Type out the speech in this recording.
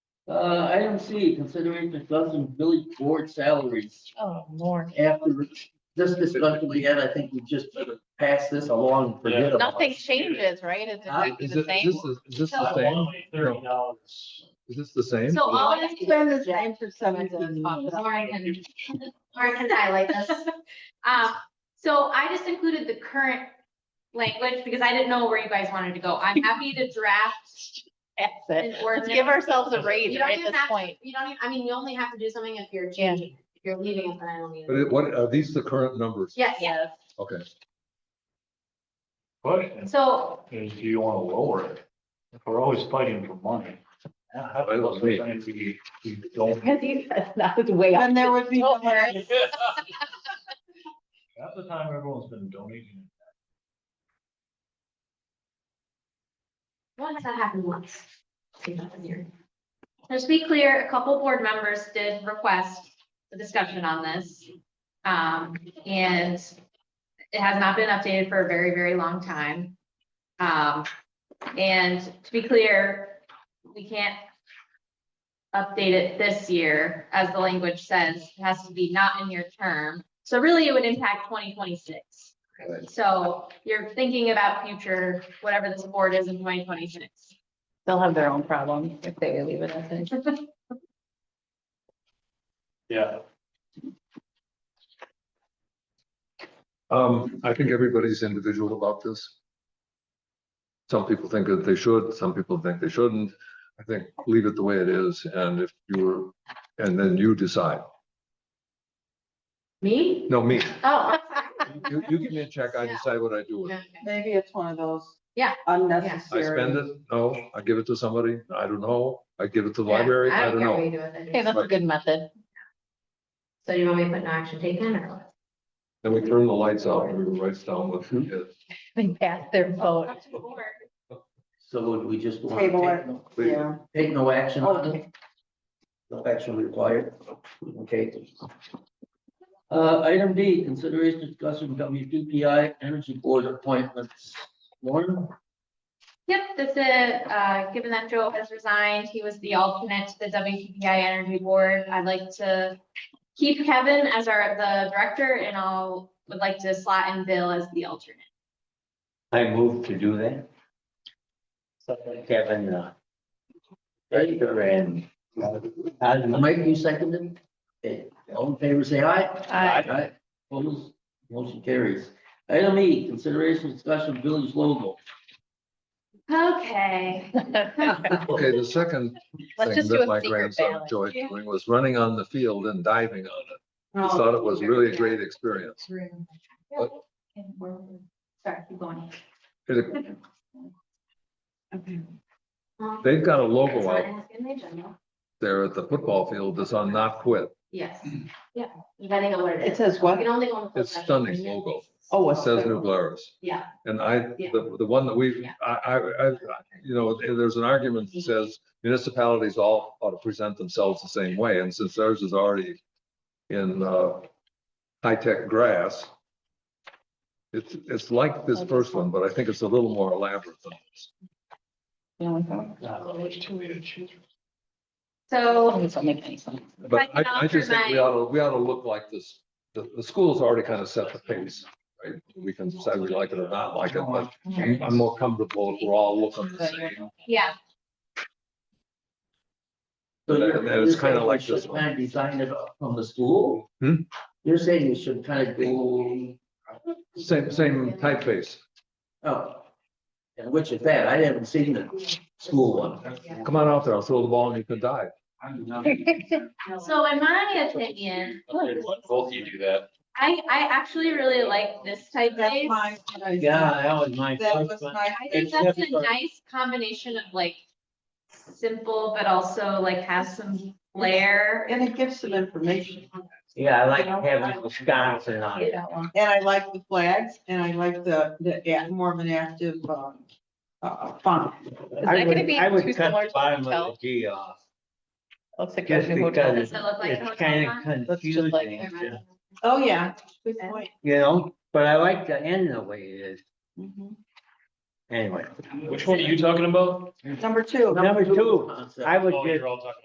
Uh, item C, considering the dozen village board salaries Oh, Lord. after this discussion we had, I think we just passed this along and forget about Nothing it. changes, right? It's Huh? exactly Is the it, same. this is, is this So- the same? Thirty dollars. Is this the same? So all Well, of it's these, been the same for seven years. Lauren can, Lauren can highlight this. Um, so I just included the current language because I didn't know where you guys wanted to go. I'm happy to draft That's an it. Let's ordinance. give ourselves a raise You don't right at even this have to- point. You don't, even- I mean, you only have to do something if you're changing, it. if you're leaving it, then I don't need But it. it, what, are these the current numbers? Yes, yeah. Yes. Okay. Question So, is, do you want to lower it? If we're always fighting for money. how Why don't about we? sometimes we- we don't- Because you, that was way up. And there would be. no Don't worry. Half the time everyone's been donating. what has that happened once? See, nothing here. Just to be clear, a couple board members did request a discussion on this. Um, and it has not been updated for a very, very long time. Um, and to be clear, we can't update it this year, as the language says, it has to be not in your term. So really, it would impact twenty twenty-six. Right. So you're thinking about future, whatever this board is in twenty twenty-six. They'll have their own problem if they leave it as is. Yeah. Um, I think everybody's individual about this. Some people think that they should, some people think they shouldn't. I think leave it the way it is and if you were, and then you decide. Me? No, me. Oh. You, you give me a check, I Yeah. decide what I do with it. Maybe it's one of those. Yeah. Unnecessary. I spend it, no, I give it to somebody, I don't know, I give it to the library, I don't care what know. you do with it. Okay, that's a good method. So you want me to put no action taken or? what? Then we turn the lights out and everyone writes down what it is. They pass their vote. Up to the board. So would we just want Table to it. take, Leave it. Yeah, take no action on it? okay, No action required, okay? Uh, item D, consideration discussion WPPI energy board appointments. Lauren? Yep, this is, uh, given that Joe has resigned, he was the alternate to the WPPI Energy Board. I'd like to keep Kevin as our, the director and I'll, would like to slot in Bill as the alternate. I move to do that. Kevin, uh, Baker and. Osmond. Mike, you seconded? Okay, all in favor, say aye. Aye. Aye. Opposed, motion carries. Item E, consideration discussion of village logo. Okay, Okay, the second Let's thing just do that a my secret grandson ballot. enjoyed Yeah. doing was running on the field and diving on it. Oh. He thought it was really a great experience. Oh. But- sorry, keep going. It- Okay. Um, They've got a it's logo not out in the agenda. there at the football field that's on not quit. Yes, yeah, depending on what it it is. says You what? can only go on the. full Mm-hmm. It's session. stunning logo. Oh, It it's says New Glarus. Yeah, And I, the, the one that we, I, I, I, you know, there's an argument that Mm-hmm. says municipalities all ought to present themselves the same way, and since theirs is already in, uh, high-tech grass, it's, it's like this first one, but I think it's a little more elaborate than this. so This don't make any sense. But I, I just think we ought to, we ought to look like this, the, the school's already kind of set the pace, right? We can decide we like it or not like it, but I'm I'm more comfortable if we're all looking the same. yeah, So That- you're- that is you're saying kinda we like should this one. Kind of design it up from the school? Hmm? You're saying we should kind of go, Same, same typeface. oh, and which is that? I haven't seen the school one. Come on out there, I'll throw the ball and you can dive. so in my opinion, Both you do that. I, I actually really like this type That's my- of. Yeah, that was my That was first one. my. I think that's a nice combination of like simple, but also like has some flair. And it gives some information. Yeah, I like having Wisconsin on it. And I like the flags and I like the, the, act- more of an active, uh, uh, font. Is I that would- gonna be I would too cut the similar to bottom of hotel? the G off, Looks like Just a new hotel. because Does it look like a it's hotel kind room? of Looks just like- confusing, Oh, yeah. Good point. you know, but I like the end the way it is, Mm-hmm. Mhm. anyway. Which one are you talking about? Number two. Number two, Concept. I would Oh, just you're all talking